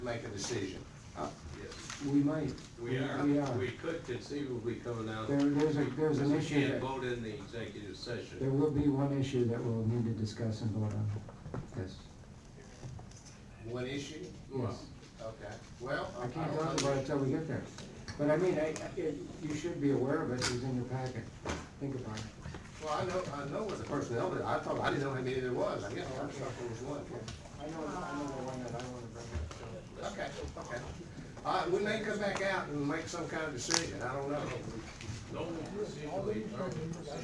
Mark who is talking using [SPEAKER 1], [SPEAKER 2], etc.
[SPEAKER 1] make a decision.
[SPEAKER 2] Uh,
[SPEAKER 1] Yes.
[SPEAKER 2] We might.
[SPEAKER 1] We
[SPEAKER 2] We
[SPEAKER 1] are,
[SPEAKER 2] are.
[SPEAKER 1] we could conceivably come out.
[SPEAKER 2] There- there's a- there's
[SPEAKER 1] Because
[SPEAKER 2] an
[SPEAKER 1] We
[SPEAKER 2] issue
[SPEAKER 1] can't
[SPEAKER 2] that-
[SPEAKER 1] vote in the executive
[SPEAKER 2] There
[SPEAKER 1] session.
[SPEAKER 2] will be one issue that we'll need to discuss and vote on. Yes.
[SPEAKER 1] One issue?
[SPEAKER 2] Yes.
[SPEAKER 1] Okay, well.
[SPEAKER 2] I can't talk about it till we get there. But I mean, I, I- it- you should be aware of it, it's in your packet. Think about it.
[SPEAKER 1] Well, I know, I know what the personnel, but I thought, I didn't know how many there was, I guess I thought there was one.
[SPEAKER 2] I know, I know the one that I wanna bring up,
[SPEAKER 1] Okay, okay. All right, we may come back out and make some kind of decision, I don't know.